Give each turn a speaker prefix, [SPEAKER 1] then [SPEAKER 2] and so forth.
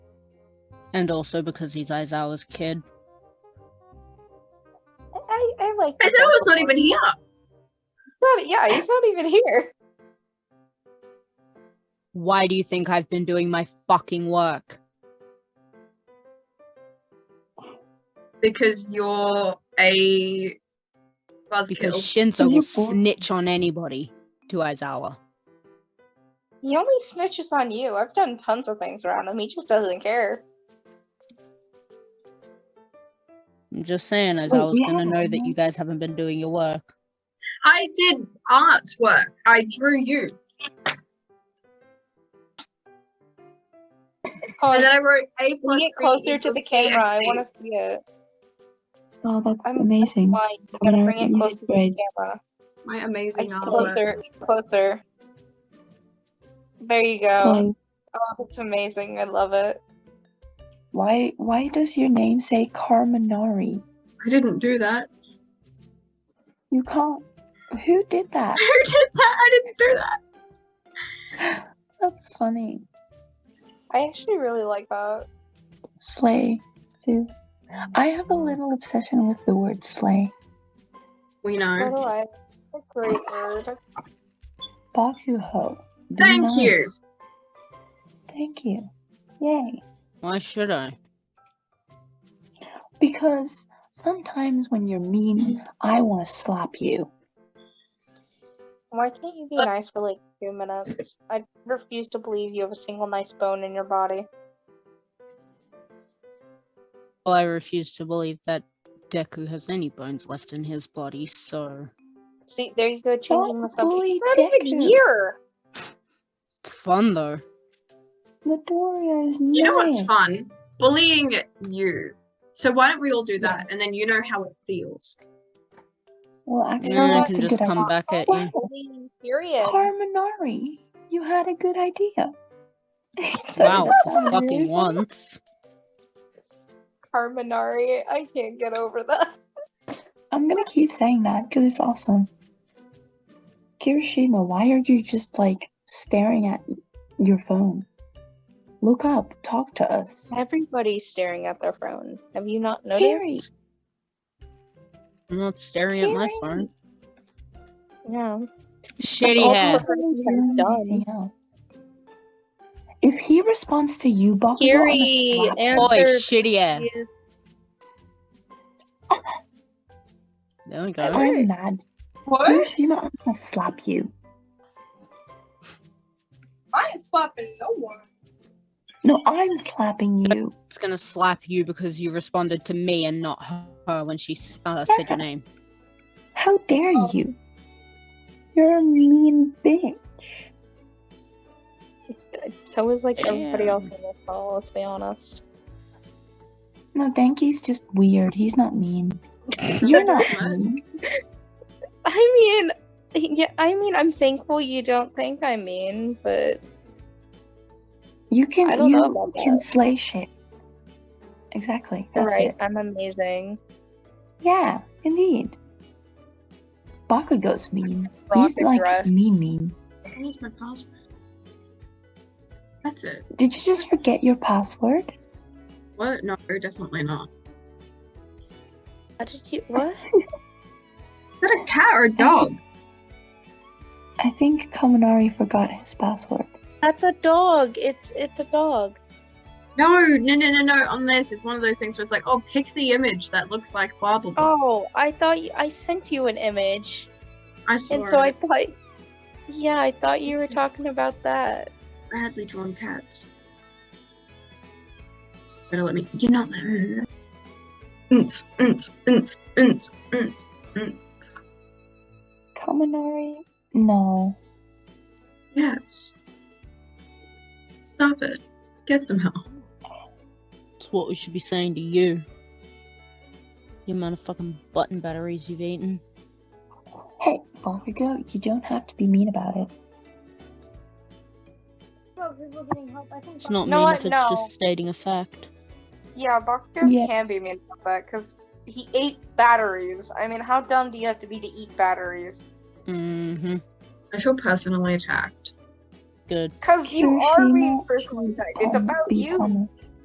[SPEAKER 1] and also because he's Aizawa's kid.
[SPEAKER 2] I, I, I like.
[SPEAKER 3] I
[SPEAKER 2] this
[SPEAKER 3] said I was not
[SPEAKER 2] episode.
[SPEAKER 3] even here.
[SPEAKER 2] Not- yeah, he's not even here.
[SPEAKER 1] Why do you think I've been doing my fucking work?
[SPEAKER 3] Because you're a
[SPEAKER 1] Because
[SPEAKER 3] buzzkill.
[SPEAKER 1] Shinzo
[SPEAKER 2] You
[SPEAKER 1] will
[SPEAKER 2] fool.
[SPEAKER 1] snitch on anybody to Aizawa.
[SPEAKER 2] He only snitches on you. I've done tons of things around him. He just doesn't care.
[SPEAKER 1] I'm just saying, Aizawa's
[SPEAKER 2] we
[SPEAKER 1] gonna
[SPEAKER 2] haven't
[SPEAKER 1] know that
[SPEAKER 2] done
[SPEAKER 1] you guys haven't been doing your work.
[SPEAKER 3] I did artwork. I drew you.
[SPEAKER 2] Oh,
[SPEAKER 3] And then I wrote A
[SPEAKER 2] can
[SPEAKER 3] plus
[SPEAKER 2] you get
[SPEAKER 3] B
[SPEAKER 2] closer to the
[SPEAKER 3] equals
[SPEAKER 2] camera? I
[SPEAKER 3] CXD.
[SPEAKER 2] want to see it.
[SPEAKER 4] Oh, that's
[SPEAKER 2] I'm-
[SPEAKER 4] amazing.
[SPEAKER 2] Why? You gotta
[SPEAKER 4] Whatever,
[SPEAKER 2] bring it
[SPEAKER 4] you
[SPEAKER 2] closer to the
[SPEAKER 4] grades.
[SPEAKER 2] camera.
[SPEAKER 3] My amazing
[SPEAKER 2] It's
[SPEAKER 3] artwork.
[SPEAKER 2] closer. It's closer. There you go.
[SPEAKER 4] Like,
[SPEAKER 2] Oh, that's amazing. I love it.
[SPEAKER 4] why why does your name say Carminari?
[SPEAKER 3] I didn't do that.
[SPEAKER 4] You can't. Who did that?
[SPEAKER 3] Who did that? I didn't do that.
[SPEAKER 4] That's funny.
[SPEAKER 2] I actually really like that.
[SPEAKER 4] Slay. Sue. I have a little obsession with the word slay.
[SPEAKER 3] We
[SPEAKER 2] So do
[SPEAKER 3] know.
[SPEAKER 2] I. It's a great word.
[SPEAKER 4] Bakuho. Be
[SPEAKER 3] Thank you.
[SPEAKER 4] nice. Thank you. Yay.
[SPEAKER 1] Why should I?
[SPEAKER 4] Because sometimes when you're mean, I want to slap you.
[SPEAKER 2] Why can't you be nice for like two minutes? I refuse to believe you have a single nice bone in your body.
[SPEAKER 1] Well, Oh, I refuse to believe that Deku has any bones left in his body, so
[SPEAKER 2] See, there you go, changing the
[SPEAKER 4] Don't
[SPEAKER 2] subject.
[SPEAKER 4] bully
[SPEAKER 2] Not even
[SPEAKER 4] Deku.
[SPEAKER 2] here.
[SPEAKER 1] it's fun though.
[SPEAKER 4] Midoriya is
[SPEAKER 3] You know what's
[SPEAKER 4] nice.
[SPEAKER 3] fun? Bullying you. So why don't we all do that and then you know how it feels?
[SPEAKER 4] Well, actually,
[SPEAKER 1] Yeah, I
[SPEAKER 4] that's
[SPEAKER 1] can
[SPEAKER 4] a
[SPEAKER 1] just
[SPEAKER 4] good
[SPEAKER 1] come
[SPEAKER 4] idea.
[SPEAKER 1] back at you.
[SPEAKER 4] Wow,
[SPEAKER 2] Period.
[SPEAKER 4] Carminari, you had a good idea. Sorry,
[SPEAKER 1] Wow,
[SPEAKER 4] that sounded
[SPEAKER 1] fucking
[SPEAKER 4] really
[SPEAKER 1] once.
[SPEAKER 2] Carminari. I can't get over that.
[SPEAKER 4] I'm gonna keep saying that because it's awesome. Kirishima, why are you just like staring at your phone? Look up, talk to us.
[SPEAKER 2] Everybody's staring at their phone. Have you not noticed?
[SPEAKER 4] Kiri,
[SPEAKER 1] I'm not staring at my
[SPEAKER 4] Kiri.
[SPEAKER 1] phone.
[SPEAKER 2] Yeah.
[SPEAKER 1] Shitty
[SPEAKER 2] all
[SPEAKER 1] hair.
[SPEAKER 2] That's
[SPEAKER 4] Doesn't he
[SPEAKER 2] what
[SPEAKER 4] do
[SPEAKER 2] I've done.
[SPEAKER 4] anything else? If he responds to you, Bakugo,
[SPEAKER 2] Kiri,
[SPEAKER 4] I'm gonna slap
[SPEAKER 2] answer-
[SPEAKER 4] him.
[SPEAKER 1] Oi, shitty hair. There we go.
[SPEAKER 4] I'm mad.
[SPEAKER 3] Hmm?
[SPEAKER 5] What?
[SPEAKER 4] Kirishima, I'm gonna slap you.
[SPEAKER 5] I ain't slapping no one.
[SPEAKER 4] No, I'm slapping you.
[SPEAKER 1] It's gonna slap you because you responded to me and not her- her when she s- uh, said your name.
[SPEAKER 4] How dare
[SPEAKER 2] Oh.
[SPEAKER 4] you? You're a mean bitch.
[SPEAKER 2] So is like everybody
[SPEAKER 1] Damn.
[SPEAKER 2] else in this hall, let's be honest.
[SPEAKER 4] No, Denki's just weird. He's not mean. You're not mean.
[SPEAKER 2] I mean yeah, I mean I'm thankful you don't think I mean, but
[SPEAKER 4] You can
[SPEAKER 2] I don't
[SPEAKER 4] you
[SPEAKER 2] know about
[SPEAKER 4] can
[SPEAKER 2] that.
[SPEAKER 4] slay shit. Exactly.
[SPEAKER 2] you're
[SPEAKER 4] That's
[SPEAKER 2] right,
[SPEAKER 4] it.
[SPEAKER 2] I'm amazing.
[SPEAKER 4] Yeah, indeed. Bakugo's mean.
[SPEAKER 2] Rock
[SPEAKER 4] He's like
[SPEAKER 2] dress.
[SPEAKER 4] mean mean.
[SPEAKER 3] Where's my password? That's it.
[SPEAKER 4] Did you just forget your password?
[SPEAKER 3] What? No, definitely not.
[SPEAKER 2] How did you what?
[SPEAKER 3] Is that a cat or a dog?
[SPEAKER 4] I think Kaminari forgot his password.
[SPEAKER 2] That's a dog. It's it's a dog.
[SPEAKER 3] No, no, no, no, no. On this, it's one of those things where it's like, oh, pick the image that looks like blah blah blah.
[SPEAKER 2] Oh, I thought you, I sent you an image.
[SPEAKER 3] I saw
[SPEAKER 2] And so I
[SPEAKER 3] it.
[SPEAKER 2] thought Yeah, I thought you were talking about that.
[SPEAKER 3] badly drawn cats. Better let me. You're not. Unts, unts, unts, unts, unts.
[SPEAKER 4] Kaminari? No.
[SPEAKER 3] Yes. Stop it. Get some help.
[SPEAKER 1] That's what we should be saying to you. The amount of fucking button batteries you've eaten.
[SPEAKER 4] Hey, Bakugo, you don't have to be mean about it.
[SPEAKER 1] It's not
[SPEAKER 2] No,
[SPEAKER 1] mean
[SPEAKER 2] I-
[SPEAKER 1] if it's
[SPEAKER 2] no.
[SPEAKER 1] just stating a fact.
[SPEAKER 2] Yeah, Bakugo
[SPEAKER 4] Yes.
[SPEAKER 2] can be mean about that because he ate batteries. I mean, how dumb do you have to be to eat batteries?
[SPEAKER 1] Mm-hmm.
[SPEAKER 3] I feel personally attacked.
[SPEAKER 1] Good.
[SPEAKER 2] Because you are
[SPEAKER 4] Kirishima
[SPEAKER 2] being personally
[SPEAKER 4] should
[SPEAKER 2] attacked. It's
[SPEAKER 4] pun-
[SPEAKER 2] about
[SPEAKER 4] be
[SPEAKER 2] you.
[SPEAKER 4] punished.